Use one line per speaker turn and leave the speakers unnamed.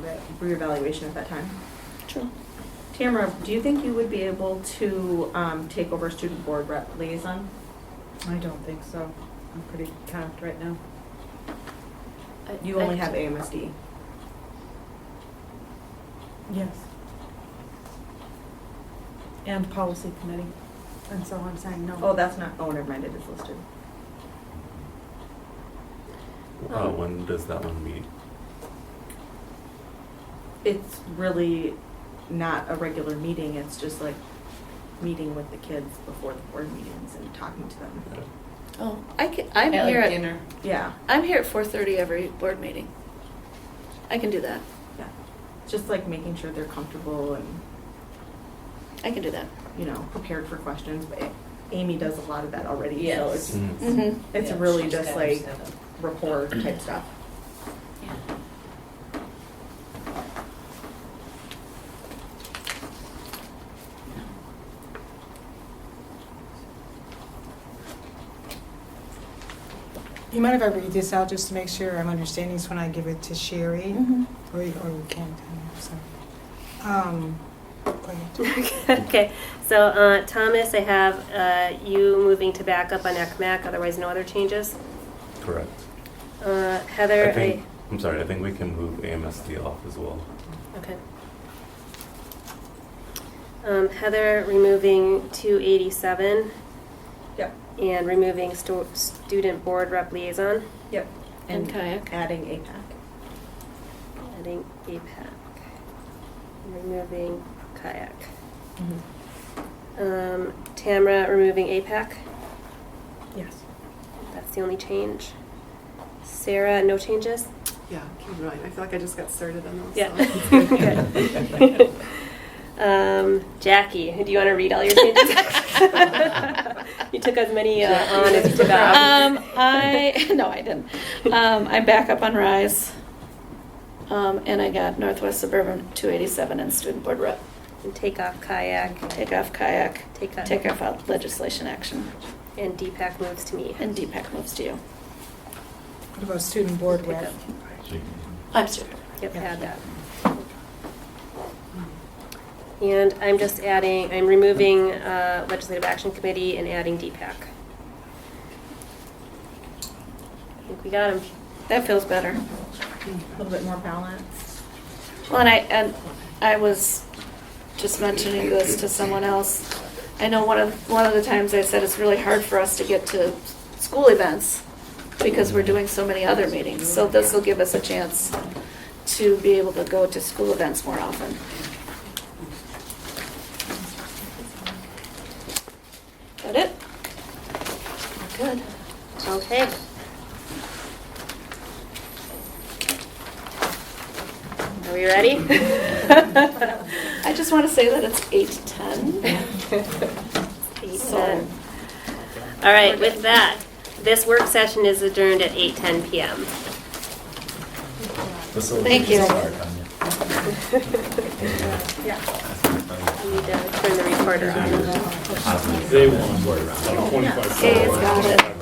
re- reevaluation at that time.
True.
Tamara, do you think you would be able to um, take over student board rep liaison?
I don't think so. I'm pretty packed right now.
You only have AMSD.
Yes. And policy committee. And so I'm saying no.
Oh, that's not, oh, never mind, it is listed.
Uh,
Um,
when does that one meet?
It's really not a regular meeting, it's just like meeting with the kids before the board meetings and talking to them.
Oh, I can, I'm
At, like,
here at,
dinner.
Yeah,
I'm here at four thirty every board meeting. I can do that.
yeah. Just like making sure they're comfortable and,
I can do that.
you know, prepared for questions. But Amy does a lot of that already, so
Yes.
it's
Mm.
Mm-hmm.
It's
Yeah,
really
she's
just
got her
like
set up.
rapport type stuff.
You mind if I read this out just to make sure I'm understanding this when I give it to Sherry? Or, or we can't, I'm sorry. Um, go ahead.
Okay, so uh, Thomas, I have uh, you moving to backup on ECMAC, otherwise no other changes.
Correct.
Uh,
I
Heather, I,
think, I'm sorry, I think we can move AMSD off as well.
okay. Um, Heather removing 287
Yep,
and removing stu- student board rep liaison,
yep.
And kayak.
Adding APAC.
adding APAC, removing kayak.
Mm-hmm.
Um, Tamara removing APAC,
Yes.
that's the only change. Sarah, no changes?
Yeah, keep in mind. I feel like I just got started on those.
Yeah.
so.
Good. um, Jackie, do you want to read all your changes? you took as many uh, on as you took off.
Um, I, no, I didn't. Um, I'm back up on Rise. Um, and I got Northwest Suburban two eighty-seven and Student Board Rep.
and take off kayak.
Take off kayak,
Take off.
take off out legislation action,
And Deepak moves to me.
and DPAC moves to you.
What about student board rep?
I'm student.
Yep, add that. And I'm just adding, I'm removing uh, Legislative Action Committee and adding DPAC. I think we got him.
That feels better.
A little bit more balanced.
Well, and I, and I was just mentioning this to someone else. I know one of, one of the times I said it's really hard for us to get to school events because we're doing so many other meetings. So this will give us a chance to be able to go to school events more often. Got it? Good.
Okay. Are we ready?
I just want to say that it's eight ten.
So- All right, with that, this work session is adjourned at 8:10 PM.
Thank you.
I need to turn the recorder on.
Okay, it's got it.